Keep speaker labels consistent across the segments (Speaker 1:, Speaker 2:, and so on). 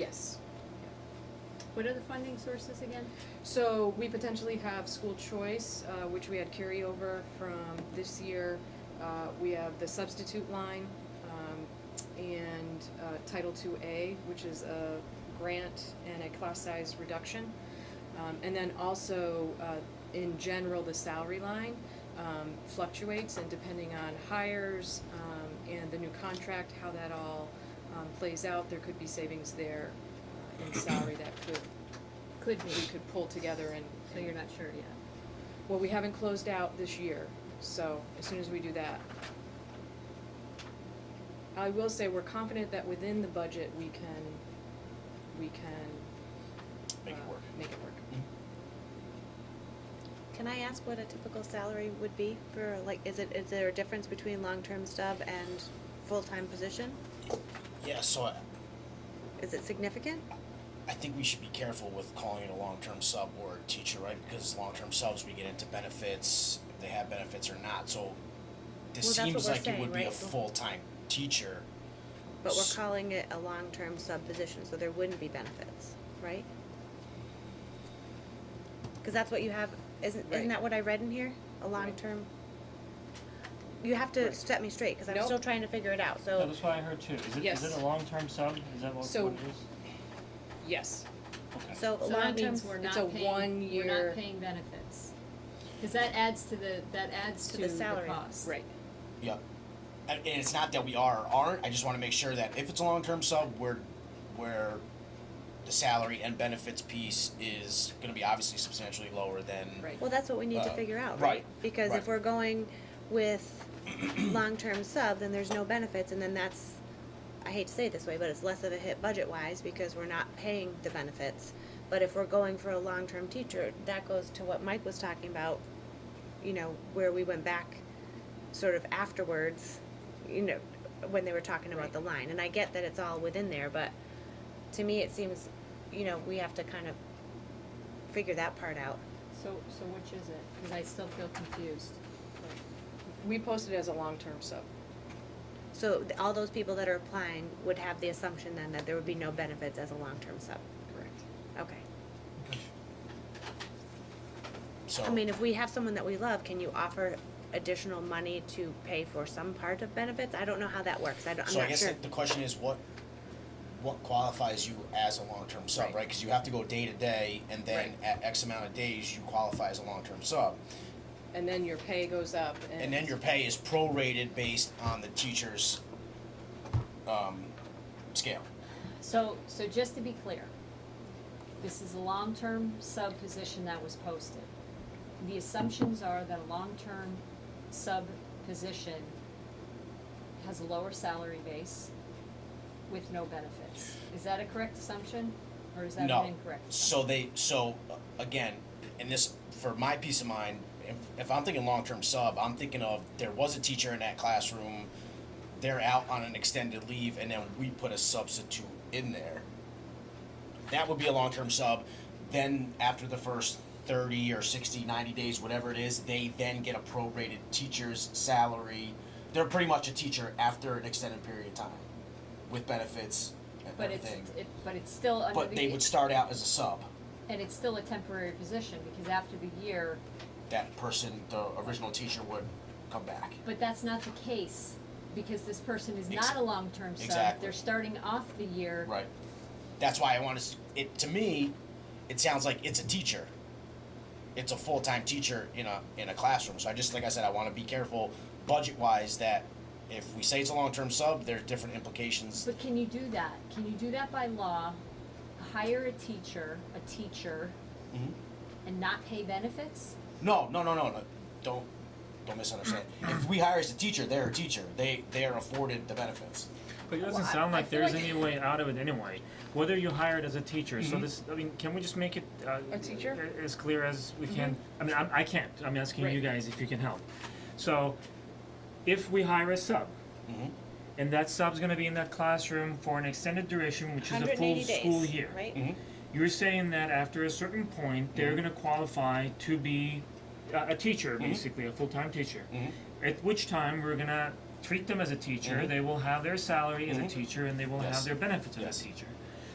Speaker 1: Yes.
Speaker 2: What are the funding sources again?
Speaker 1: So we potentially have school choice, uh, which we had carryover from this year. Uh, we have the substitute line, um, and, uh, Title Two A, which is a grant and a class size reduction. Um, and then also, uh, in general, the salary line, um, fluctuates and depending on hires, um, and the new contract, how that all, um, plays out, there could be savings there uh, in salary that could
Speaker 2: Could
Speaker 1: we could pull together and,
Speaker 2: So you're not sure yet.
Speaker 1: well, we haven't closed out this year, so as soon as we do that. I will say, we're confident that within the budget, we can, we can.
Speaker 3: Make it
Speaker 1: uh,
Speaker 3: work. Mm-hmm.
Speaker 1: Make it work.
Speaker 4: Can I ask what a typical salary would be for, like, is it, is there a difference between long-term sub and full-time position?
Speaker 3: Yeah, so I,
Speaker 4: Is it significant?
Speaker 3: I think we should be careful with calling it a long-term sub or a teacher, right? Because long-term subs, we get into benefits, if they have benefits or not, so
Speaker 4: Well,
Speaker 3: this
Speaker 4: that's what
Speaker 3: seems
Speaker 4: we're
Speaker 3: like it
Speaker 4: saying,
Speaker 3: would be a
Speaker 4: right?
Speaker 3: full-time teacher.
Speaker 4: But
Speaker 3: S-
Speaker 4: we're calling it a long-term sub position, so there wouldn't be benefits, right? Cause that's what you have, isn't,
Speaker 1: Right.
Speaker 4: isn't that what I read in here? A long-term? You have to
Speaker 1: Right.
Speaker 4: set me straight, cause I'm
Speaker 1: Nope.
Speaker 4: still trying to figure it out, so.
Speaker 5: That was what I heard too. Is it, is
Speaker 1: Yes.
Speaker 5: it a long-term sub? Is that what,
Speaker 1: So-
Speaker 5: what it is?
Speaker 1: Yes,
Speaker 5: Okay.
Speaker 4: So
Speaker 2: So that
Speaker 4: long-term,
Speaker 2: means we're
Speaker 1: it's
Speaker 2: not
Speaker 1: a
Speaker 2: paying, we're
Speaker 1: one-year-
Speaker 2: not paying benefits. Cause that adds to the, that adds
Speaker 4: To
Speaker 2: to
Speaker 4: the
Speaker 2: the
Speaker 4: salary.
Speaker 2: cost.
Speaker 1: right,
Speaker 3: Yep. And, and it's not that we are or aren't, I just wanna make sure that if it's a long-term sub, we're, we're, the salary and benefits piece is gonna be obviously substantially lower than
Speaker 1: right.
Speaker 4: Well, that's what we need to
Speaker 3: Uh,
Speaker 4: figure out,
Speaker 3: right,
Speaker 4: right? Because
Speaker 3: right.
Speaker 4: if we're going with long-term sub, then there's no benefits, and then that's, I hate to say it this way, but it's less of a hit budget-wise because we're not paying the benefits. But if we're going for a long-term teacher, that goes to what Mike was talking about, you know, where we went back sort of afterwards, you know, when they were talking about
Speaker 1: Right.
Speaker 4: the line. And I get that it's all within there, but to me, it seems, you know, we have to kind of figure that part out.
Speaker 2: So, so which is it? Cause I still feel confused.
Speaker 1: We posted it as a long-term sub,
Speaker 4: So th- all those people that are applying would have the assumption then that there would be no benefits as a long-term sub?
Speaker 1: correct.
Speaker 4: Okay.
Speaker 3: So
Speaker 4: I mean, if we have someone that we love, can you offer additional money to pay for some part of benefits? I don't know how that works. I don't, I'm
Speaker 3: So I
Speaker 4: not
Speaker 3: guess
Speaker 4: sure.
Speaker 3: the, the question is what what qualifies you as a long-term sub,
Speaker 1: Right.
Speaker 3: right? Because you have to go day to day, and then at X amount of days you qualify as a long-term sub,
Speaker 1: And then your pay goes up and.
Speaker 3: and then your pay is prorated based on the teacher's um, scale.
Speaker 2: So, so just to be clear, this is a long-term sub position that was posted. The assumptions are that a long-term sub position has a lower salary base with no benefits. Is that a correct assumption, or is that
Speaker 3: No.
Speaker 2: an incorrect assumption?
Speaker 3: So they so uh, again, and this for my peace of mind. If, if I'm thinking long-term sub, I'm thinking of there was a teacher in that classroom, they're out on an extended leave, and then we put a substitute in there. That would be a long-term sub. Then after the first 30 or 60, 90 days, whatever it is, they then get a prorated teacher's salary. They're pretty much a teacher after an extended period of time, with benefits and
Speaker 2: But it's,
Speaker 3: everything.
Speaker 2: it, but it's still under the.
Speaker 3: but they would start out as a sub.
Speaker 2: And it's still a temporary position, because after the year,
Speaker 3: that person, the original teacher, would come back.
Speaker 2: But that's not the case, because this person is not a long-term sub,
Speaker 3: Exactly.
Speaker 2: they're starting off the year.
Speaker 3: Right. That's why I want to. It to me, it sounds like it's a teacher. It's a full time teacher in a in a classroom. So I just like I said, I want to be careful budget wise that if we say it's a long term sub, there's different implications.
Speaker 2: But can you do that? Can you do that by law? Hire a teacher, a teacher,
Speaker 3: Mhm.
Speaker 2: and not pay benefits?
Speaker 3: No, no, no, no, no. Don't don't misunderstand. if we hire as a teacher, they're a teacher. They they are afforded the benefits.
Speaker 5: But it doesn't
Speaker 2: Well, I-
Speaker 5: sound
Speaker 2: I
Speaker 5: like
Speaker 2: feel
Speaker 5: there's
Speaker 2: like-
Speaker 5: any way out of it anyway. Whether you hired as a teacher, so this, I mean, can we just make it uh,
Speaker 1: A teacher?
Speaker 5: a- as clear as we can? I mean, I'm, I can't. I'm asking you
Speaker 1: Right.
Speaker 5: guys if you can help. So, if we hire a sub, Mm-hmm.
Speaker 3: Mhm.
Speaker 5: and that sub's going to be in that classroom for an extended duration, which is a full
Speaker 4: 180
Speaker 5: school
Speaker 4: days,
Speaker 5: year,
Speaker 4: right?
Speaker 5: You're saying that after a certain point, they're
Speaker 3: Mm-hmm.
Speaker 5: going to qualify to be uh, a, a teacher, basically a full-time teacher.
Speaker 3: Mm-hmm.
Speaker 5: At which time we're going to treat them as a teacher. They will have their salary as a teacher, and they will
Speaker 3: Mm-hmm. Yes.
Speaker 5: have their benefits
Speaker 3: Yes.
Speaker 5: as a teacher.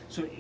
Speaker 5: So